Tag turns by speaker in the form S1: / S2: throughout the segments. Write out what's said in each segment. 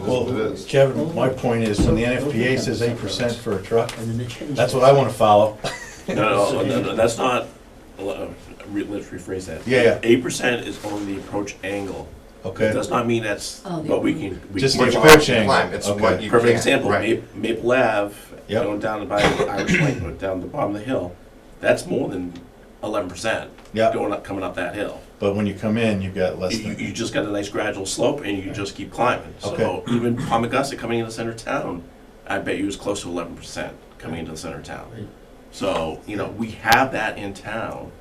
S1: Well,
S2: what it is.
S1: Kevin, my point is, when the NFPA says eight percent for a truck,
S3: And then they changed.
S1: that's what I wanna follow.
S4: No, no, no, no, that's not, uh, re- let's rephrase that.
S1: Yeah, yeah.
S4: Eight percent is on the approach angle. It
S1: Okay,
S4: does not mean that's,
S5: Oh, the-
S4: but we can. we
S1: Just
S4: can-
S1: the
S2: What you
S1: approach
S2: can
S1: angle.
S2: climb, It's what
S1: Okay.
S2: you can.
S4: Perfect example,
S2: right.
S4: Ma- Maple Ave,
S1: Yep.
S4: going down by Irish Lake, but down the bottom of the hill, that's more than eleven percent.
S1: Yep.
S4: Going up, coming up that hill.
S1: but when you come in, you've got less
S4: You, you
S1: than,
S4: just got a nice gradual slope and you just keep climbing. So
S1: Okay.
S4: even Palmagussit coming into the center of town, I bet you was close to eleven percent coming into the center of
S3: Right.
S4: town. So, you know, we have that in town.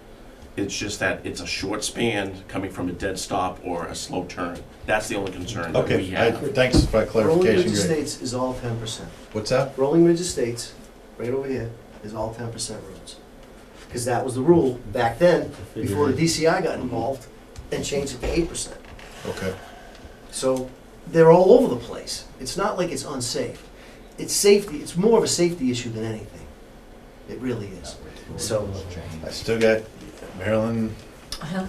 S4: It's just that it's a short span coming from a dead stop or a slow turn. That's the only concern that we
S1: okay, I,
S4: have.
S1: thanks for that
S3: Rolling Ridge
S1: clarification, great.
S3: Estates is all ten percent.
S1: What's that?
S3: Rolling Ridge Estates, right over here, is all ten percent roads. Because that was the rule back then, before the DCI
S1: Mm-hmm.
S3: got involved and changed it to eight percent.
S1: Okay,
S3: So they're all over the place. It's not like it's unsafe. It's safety, it's more of a safety issue than anything. It really is. So,
S1: I still got Maryland
S5: Uh-huh.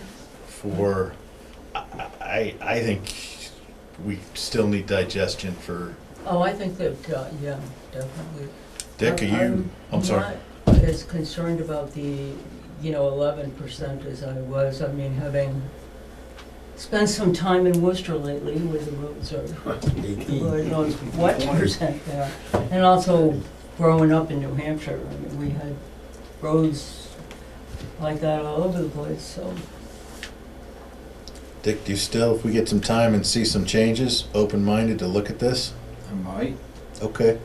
S1: for, I, I, I think we still need digestion for,
S5: Oh, I think that, uh, yeah, definitely.
S1: Dick, are you, I'm sorry.
S5: not as concerned about the, you know, eleven percent as I was, I mean, having spent some time in Worcester lately where the roads are, Lord knows what percent they are. And also growing up in New Hampshire, I mean, we had roads like that all over the place, so.
S1: Dick, do you still, if we get some time and see some changes, open-minded to look at this?
S6: I might.
S1: Okay,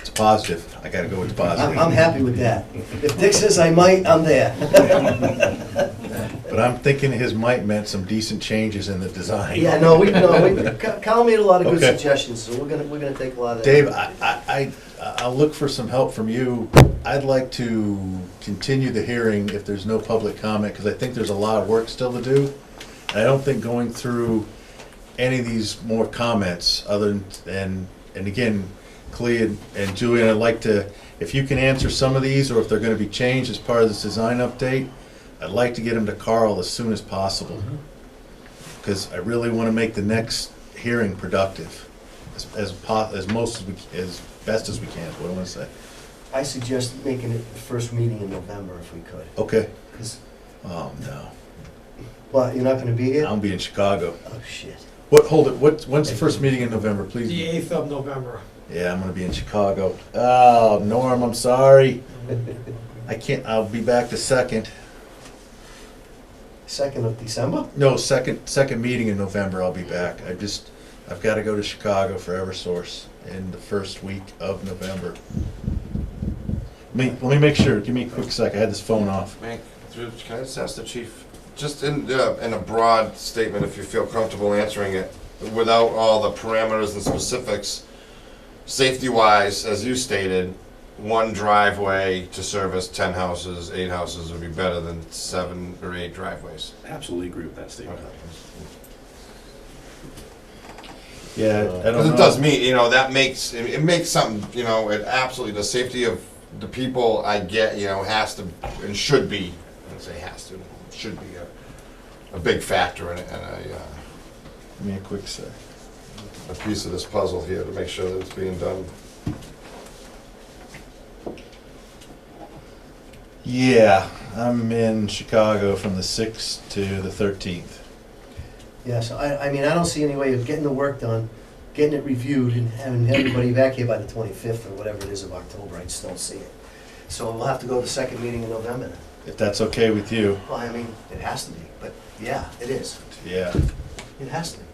S1: it's positive, I gotta go with the
S3: I'm,
S1: positive.
S3: I'm happy with that. If Dick says I might, I'm there.
S1: But I'm thinking his might meant some decent changes in the design.
S3: Yeah, no, we, no, we, Cal- Cal made a lot of good
S1: Okay.
S3: suggestions, so we're gonna, we're gonna take a lot of.
S1: Dave, I, I, I- I'll look for some help from you. I'd like to continue the hearing if there's no public comment, because I think there's a lot of work still to do. And I don't think going through any of these more comments, other than, and again, Clea and- and Julian, I'd like to, if you can answer some of these, or if they're gonna be changed as part of this design update, I'd like to get them to Carl as soon as possible.
S3: Mm-hmm.
S1: Because I really wanna make the next hearing productive as, as po, as most as we, c- as best as we can, is what I wanna say.
S3: I suggest making it the first meeting in November if we could,
S1: Okay,
S3: 'cause-
S1: oh no,
S3: but you're not gonna be here?
S1: I'll be in Chicago.
S3: Oh, shit.
S1: What, hold it, what, when's the first meeting in November,
S7: The
S1: please?
S7: 8th of November.
S1: Yeah, I'm gonna be in Chicago. Oh, Norm, I'm sorry. I can't, I'll be back the second,
S3: Second of December?
S1: no, second, second meeting in November, I'll be back. I just, I've gotta go to Chicago for Eversource in the first week of November. Let me, let me make sure, give me a quick sec, I had this phone off.
S2: May- through- Can I just ask the chief, just in, uh, in a broad statement, if you feel comfortable answering it, without all the parameters and specifics, safety-wise, as you stated, one driveway to service ten houses, eight houses would be better than seven or eight driveways.
S4: Absolutely agree with that statement.
S1: Yeah, I don't know.
S2: Because it does mean, you know, that makes, it it makes something, you know, it absolutely, the safety of the people I get, you know, has to, and should be, I don't say has to, should be a, a big factor in it, and a, uh,
S1: Give me a quick sec.
S2: a piece of this puzzle here to make sure that it's being done.
S1: Yeah, I'm in Chicago from the 6th to the 13th.
S3: Yeah, so I, I mean, I don't see any way of getting the work done, getting it reviewed, and having everybody back here by the twenty-fifth or whatever it is of October, I just don't see it. So we'll have to go to the second meeting in November then.
S1: If that's okay with you.
S3: Well, I mean, it has to be, but yeah, it is,
S1: Yeah.
S3: it has to be.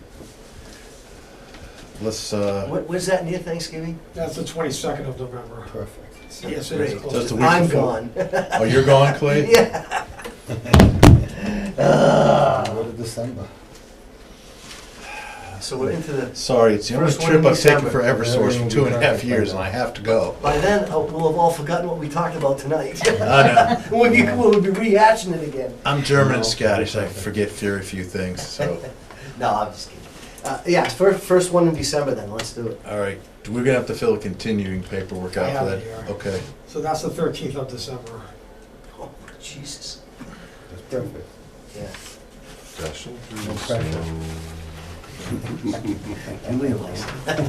S1: Let's uh
S3: What, when's that near Thanksgiving?
S7: That's the 22nd of November.
S3: Perfect.
S7: Yes, it is.
S1: Just a week
S3: I'm
S1: before.
S3: gone.
S1: Oh, you're gone, Clay?
S3: Yeah. Ah.
S6: to December.
S3: So we're into the,
S1: Sorry, it's the only
S3: First one
S1: trip
S3: in
S1: I've taken
S3: December.
S1: for EverSource for two and a
S6: Everything will be perfect
S1: half
S6: by
S1: years,
S6: then.
S1: and I have to go.
S3: by then, uh, we'll have all forgotten what we talked about tonight.
S1: I know.
S3: We'll be, we'll be rehashing it again.
S1: I'm German and Scottish. I forget very few things, so.
S3: No, I'm just kidding. Uh, yeah, first, first one in December then, let's do it.
S1: All right, we're gonna have to fill a continuing paperwork out
S7: I
S1: for
S7: have it
S1: that.
S7: here.
S1: Okay.
S7: So that's the 13th of December.
S3: Oh, Jesus.
S6: That's perfect.
S3: Yeah.
S2: Discussion.
S6: No pressure.
S2: So-
S3: Julian likes it.